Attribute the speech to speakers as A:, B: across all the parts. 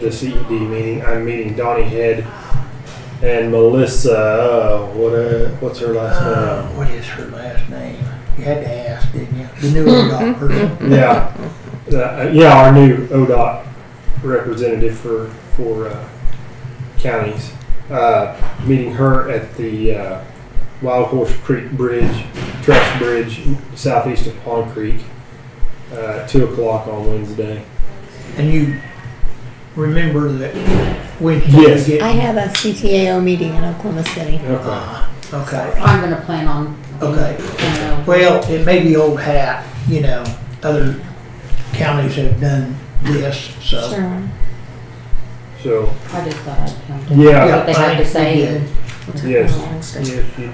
A: the CED meeting. I'm meeting Donnie Head and Melissa. Uh, what uh, what's her
B: Uh,
A: last
B: what is her last name? You had to ask, didn't you? The new adult person.
A: name? Yeah, uh, yeah, our new ODOT representative for for uh, counties. Uh, meeting her at the uh, Wild Horse Creek Bridge, Trust Bridge, southeast of Pond Creek, uh, two o'clock on Wednesday.
B: And you remember that Wednesday?
A: Yes.
B: you get-
C: I have a CTAO meeting in Oklahoma City.
A: Okay.
B: Uh, Okay,
D: I'm gonna plan on.
B: Okay.
D: You know,
B: well, it may be old hat, you know, other counties have done this, so.
C: Sure.
A: So
D: I just thought I'd come. to
A: yeah,
D: What they have to
B: I-
D: say.
B: yeah.
A: yes.
C: It's
A: Yes, you- I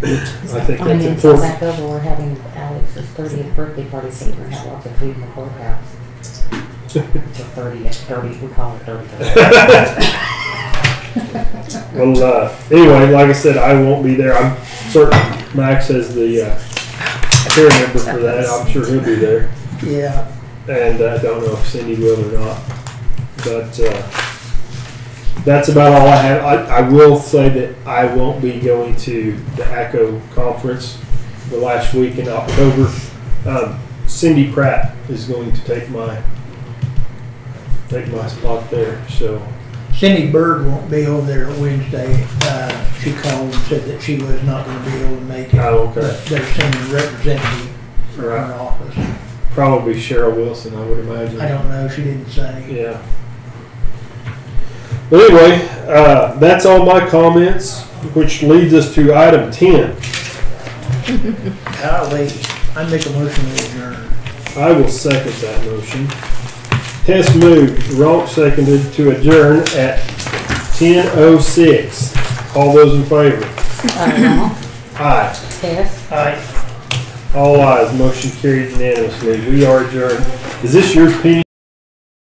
A: think that's
D: Finance on
A: important.
D: back over, we're having Alex's thirtieth birthday party, so we're gonna have lots of food in the courthouse. It's a thirtieth, thirty, we call it thirty.
A: Well, uh, anyway, like I said, I won't be there. I'm certain Max has the uh, chair member for that. I'm sure he'll be there,
B: Yeah,
A: and uh, I don't know if Cindy will or not. But uh, that's about all I have. I, I will say that I won't be going to the ACO conference the last week in October. Um, Cindy Pratt is going to take my take my spot there, so.
B: Cindy Bird won't be over there Wednesday. Uh, she called and said that she was not gonna be able to make it.
A: Oh, okay.
B: But They're sending a representative from her
A: Right.
B: office.
A: Probably Cheryl Wilson, I would imagine.
B: I don't know, she didn't say.
A: Yeah. But anyway, uh, that's all my comments, which leads us to item 10.
B: Golly, I make a motion to adjourn.
A: I will second that motion. Hess moved, Ronk seconded to adjourn at 10.06. All those in favor?
D: Uh,
A: Aye.
D: Tess,
B: Aye.
A: All ayes. Motion carried unanimously. We are adjourned. Is this yours, Penny?